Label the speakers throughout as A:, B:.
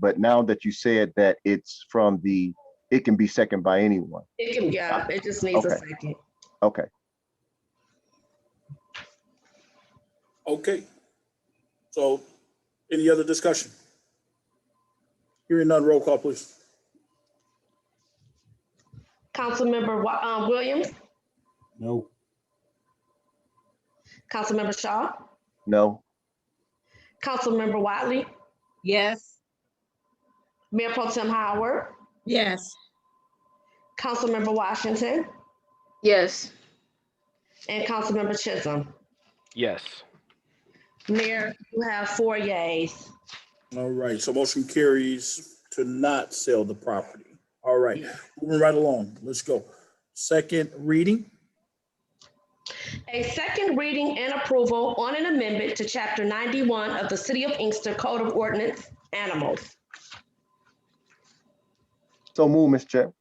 A: but now that you said that it's from the, it can be second by anyone.
B: It can, yeah, it just needs a
A: Okay.
B: second.
A: Okay,
C: Okay. So any other discussion? Hearing none, roll call, please.
B: Councilmember Wa- uh, Williams,
C: No.
B: Councilmember Shaw,
A: no,
B: Councilmember Wiley,
D: Yes.
B: Mayor Pro Tem Howard,
D: Yes.
B: Councilmember Washington,
E: Yes.
B: and Councilmember Chisholm.
F: Yes.
B: Mayor, you have four yays.
C: All right, so motion carries to not sell the property. All right, moving right along, let's go. Second reading,
B: A second reading and approval on an amendment to Chapter 91 of the City of Inkster Code of Ordinance, Animals.
A: so move, Mr. Chair.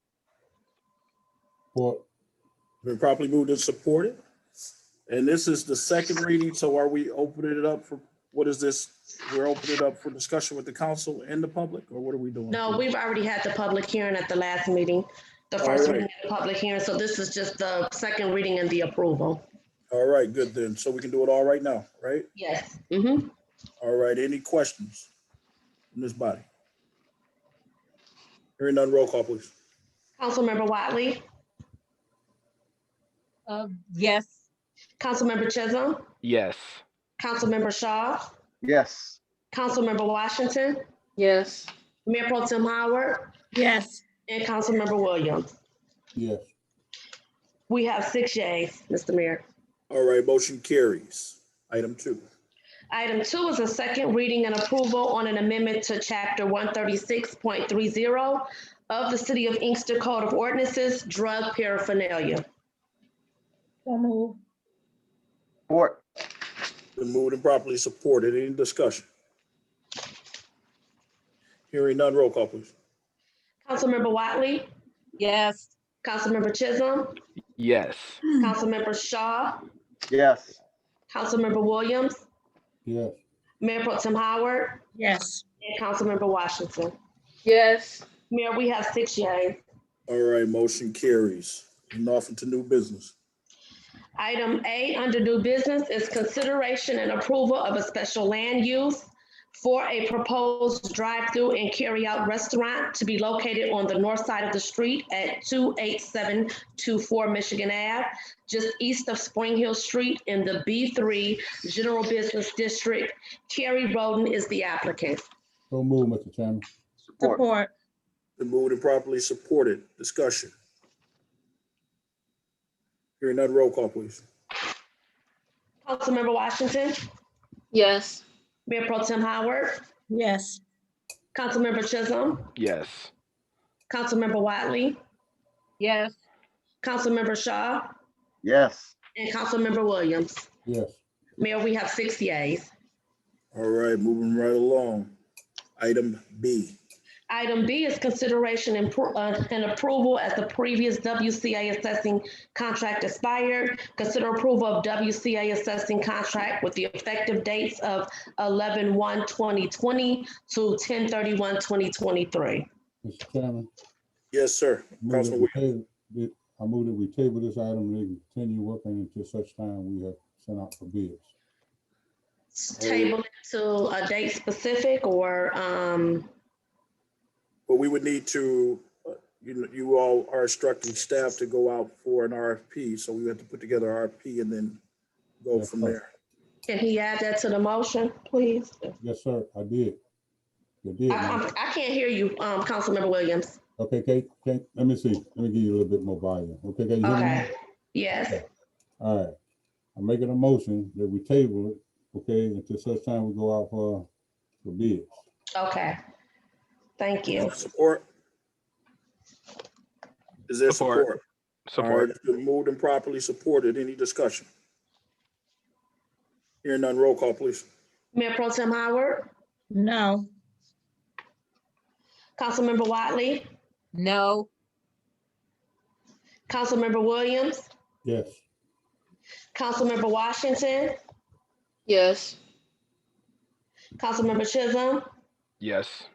C: been properly moved and supported. And this is the second reading, so are we opening it up for, what is this? We're opening it up for discussion with the council and the public, or what are we doing?
B: No, we've already had the public hearing at the last meeting, the first
C: Alright.
B: reading and the public hearing, so this is just the second reading and the approval.
C: All right, good then, so we can do it all right now, right?
B: Yes. Mm-hmm.
C: All right, any questions in this body? Hearing none, roll call, please.
B: Councilmember Wiley,
D: Uh, yes.
B: Councilmember Chisholm,
F: Yes.
B: Councilmember Shaw,
A: Yes,
B: Councilmember Washington,
E: Yes.
B: Mayor Pro Tem Howard,
D: Yes.
B: and Councilmember Williams.
C: Yes.
B: We have six yays, Mr. Mayor.
C: All right, motion carries. Item two.
B: Item two is a second reading and approval on an amendment to chapter one thirty-six point three zero of the City of Inkster Code of Ordinances, Drug Paraphernalia.
D: So move.
A: or,
C: Been moved and properly supported. Any discussion? Hearing none, roll call, please.
B: Councilmember Watley,
D: Yes.
B: Councilmember Chisholm,
F: Yes.
B: Councilmember Shaw,
A: yes,
B: Councilmember Williams. Yes. Mayor Pro Tem Howard
D: Yes.
B: and Councilmember Washington.
E: Yes.
B: Mayor, we have six yays.
C: All right, motion carries. And off into new business.
B: Item A under new business is consideration and approval of a special land use for a proposed drive-through and carry-out restaurant to be located on the north side of the street at 28724 Michigan Ave, just east of Spring Hill Street in the B3 General Business District. Carrie Roden is the applicant.
G: So move, Mr. Chairman.
A: support,
D: Support.
C: Been moved and properly supported. Discussion. Hearing none, roll call, please.
B: Councilmember Washington,
E: Yes.
B: Mayor Pro Tem Howard,
D: Yes.
B: Councilmember Chisholm,
F: Yes.
B: Councilmember Wiley,
D: Yes.
B: Councilmember Shaw,
A: yes.
B: And Councilmember Williams.
G: Yes,
B: Mayor, we have six yays.
C: All right, moving right along. Item B.
B: Item B is consideration and pro- uh, and approval as the previous WCA assessing contract expired. Consider approval of WCA assessing contract with the effective dates of 11-1-2020 to 10-31-2023.
G: Mr. Chairman.
C: Yes, sir.
G: move that
C: Councilman
G: we
C: Williams.
G: table- that- I move that we table this item and continue working until such time we have sent out for bids.
B: Table it to a date specific or, um,
C: But we would need to, uh, you, know, you all are instructing staff to go out for an RFP, so we have to put together RFP and then go
G: Yes,
C: from
G: sir.
C: there.
B: can he add that to the motion, please?
G: Yes, sir, I did. You did.
B: I,
G: man.
B: I'm- I can't hear you, um, Councilmember Williams.
G: Okay, Kate, Kate, let me see. Let me give you a little bit more volume. Okay, can you hear me? now?
B: Okay, yes.
G: All right. I'm making a motion that we table it, okay, until such time we go out for, for bids.
B: Okay. Thank you.
C: Support? Is there
F: Support.
C: support? All right,
F: Support.
C: it's been moved and properly supported. Any discussion? Hearing none, roll call, please.
B: Mayor Pro Tem Howard,
D: No.
B: Councilmember Watley,
D: No.
B: Councilmember Williams,
G: Yes,
B: Councilmember Washington,
E: Yes.
B: Councilmember Chisholm,
F: Yes.